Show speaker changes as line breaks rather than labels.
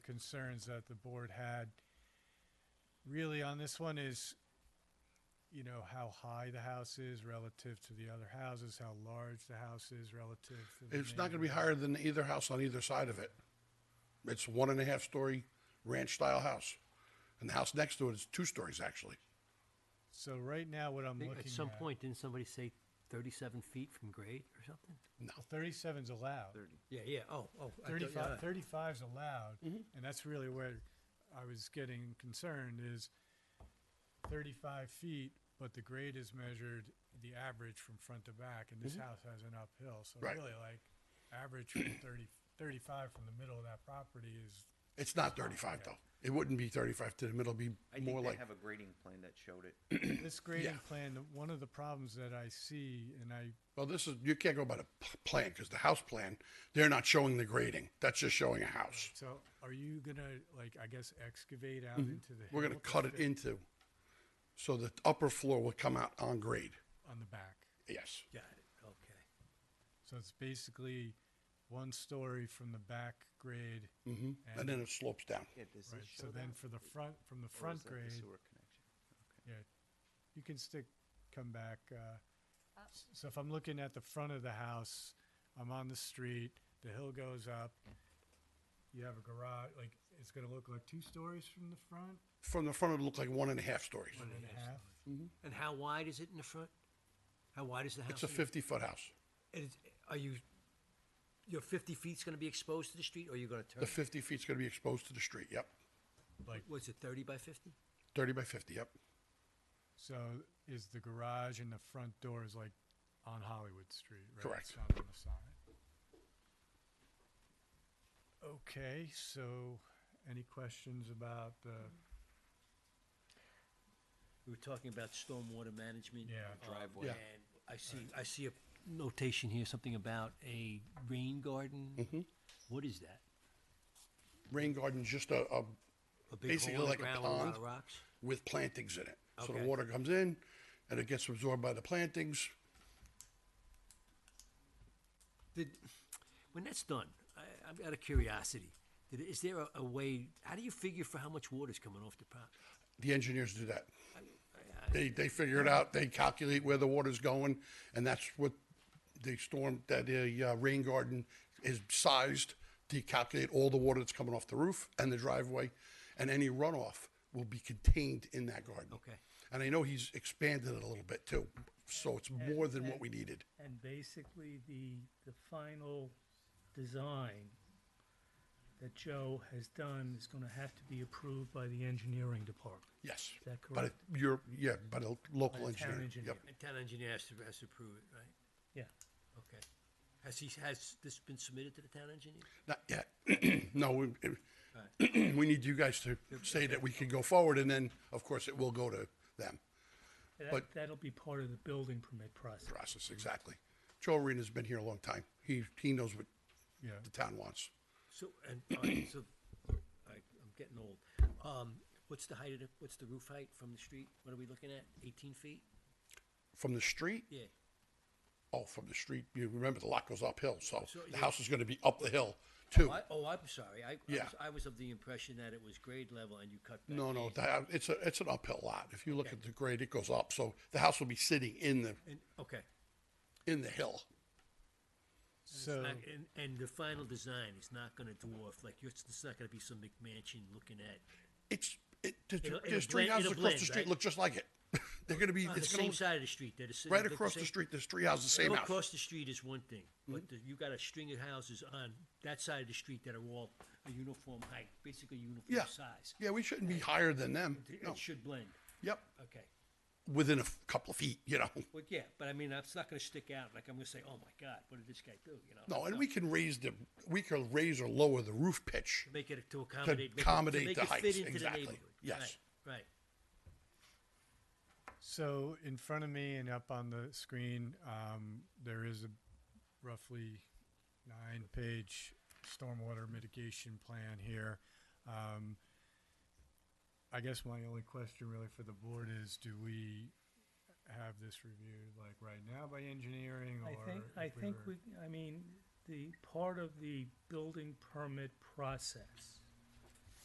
concerns that the board had really on this one is, you know, how high the house is relative to the other houses, how large the house is relative to the
It's not gonna be
neighbor.
higher than either house on either side of it. It's one and a half story ranch style house. And the house next to it is two stories actually.
So right now, what I'm
They-
looking at.
At some point, didn't somebody say thirty-seven feet from grade or something?
Thirty-seven's allowed.
Yeah, yeah, oh, oh. I thought- yeah.
35, 35's allowed, and that's really where I was getting concerned is 35 feet, but the grade is measured the average from front to back, and this house has an uphill, so
Right.
really like average from 30, 35 from the middle of that property is
It's not thirty-five though. It wouldn't be thirty-five to the middle, it'd
I
be
think
more
they
like,
have a grading plan that showed it.
this grading plan. the- One of the problems that I see, and I
well, this is, you can't go by the p- plan, cause the house plan, they're not showing the grading. That's just showing a house.
so are you gonna like I guess excavate out into the
We're
hill
gonna cut it into, so the upper floor will come out on grade.
on the back.
Yes.
Got it, okay.
So it's basically one story from the back grade.
hmm And then it slopes down.
Yeah, does
Right, so then for the front, from the front grade,
connection?
yeah, you can stick, come back, uh, s- so if I'm looking at the front of the house, I'm on the street, the hill goes up, you have a garage, like, it's gonna look like two stories from the front,
From the front, it looked like one and a half stories.
one and a half.
And how wide is it in the front? How wide is the house?
It's a
in the-
fifty-foot house.
And it's, are you, your fifty feet's gonna be exposed to the street, or you're gonna turn?
The
it?
fifty feet's gonna be exposed to the street, yep.
Like,
What's it, thirty by fifty?
Thirty by fifty, yep.
so is the garage and the front door is like on Hollywood Street, right?
Correct.
It's not on the side. Okay, so, any questions about the?
We were talking about stormwater management.
Yeah.
uh,
Driveway.
Yeah.
And I see, I see a notation here, something about a rain garden.
Mm-hmm.
What is that?
Rain garden's just a, a,
A big
Basically
hole in the
like a
ground with lot
pond.
of rocks?
with plantings in it. So the
Okay.
water comes in and it gets absorbed by the plantings.
Did, when that's done, I, I'm out of curiosity. Did, is there a, a way? How do you figure for how much water's coming off the prop?
The engineers do that. They, they figure it out, they calculate where the water's going, and that's what the storm, that the uh, rain garden is sized to calculate all the water that's coming off the roof and the driveway, and any runoff will be contained in that garden.
Okay.
And I know he's expanded it a little bit too, so it's more than what we needed.
And basically, the, the final design that Joe has done is gonna have to be approved by the engineering department.
Yes.
Is that
But it-
correct?
you're, yeah, but a local
By the town
engineer.
engineer.
Yep.
And town engineer has to, has to approve it, right?
Yeah,
Okay. Has he has this been submitted to the town engineer?
Not yet. No, we, it- we need you guys to say that we can go forward and then, of course, it will go to them.
that,
But-
that'll be part of the building permit process.
Process, exactly. Joe Arena's been here a long time. He, he knows what
Yeah.
the town wants.
So and all right, so all right, I'm getting old. Um, what's the height of the, what's the roof height from the street? What are we looking at? 18 feet?
From the street,
Yeah.
oh, from the street, you remember the lot goes uphill, so
So,
the
yeah.
house is gonna be up the hill too.
I, oh, I'm sorry. I, I,
Yeah.
was, I was of the impression that it was grade level and you cut back.
No, no, that, it's a, it's an uphill lot. If you look at the grade, it goes up, so the house will be sitting in the,
And, okay.
in the hill.
So,
Not- And, and the final design is not gonna dwarf, like, it's, it's not gonna be some McMansion looking at,
It's, it, there's-
It'll- it'll
there's three
blend-
houses
it'll
across the
blend,
street
right?
look just like it. They're gonna be,
on the
it's gonna
same
look
side of the street, that is.
Right across the street, there's three houses, same house. Mm-hmm.
Across the street is one thing, but the- you got a string of houses on that side of the street that are all a uniform height, basically
Yeah.
uniform size.
Yeah, we shouldn't be higher than them.
It-
No.
It should blend,
Yep,
okay.
within a f- couple of feet, you know.
Well, yeah, but I mean, it's not gonna stick out, like, I'm gonna say, oh my God, what did this guy do, you know?
No, and we can raise the, we can raise or lower the roof pitch.
Make it to accommodate. make it- to
accommodate
make
the
it fit
heights,
into the
exactly.
neighborhood.
Yes.
Right, Right,
so in front of me and up on the screen, um, there is a roughly nine-page stormwater mitigation plan here. Um, I guess my only question really for the board is, do we have this reviewed like right now by engineering or?
I think, I
if we
think
were-
we, I mean, the part of the building permit process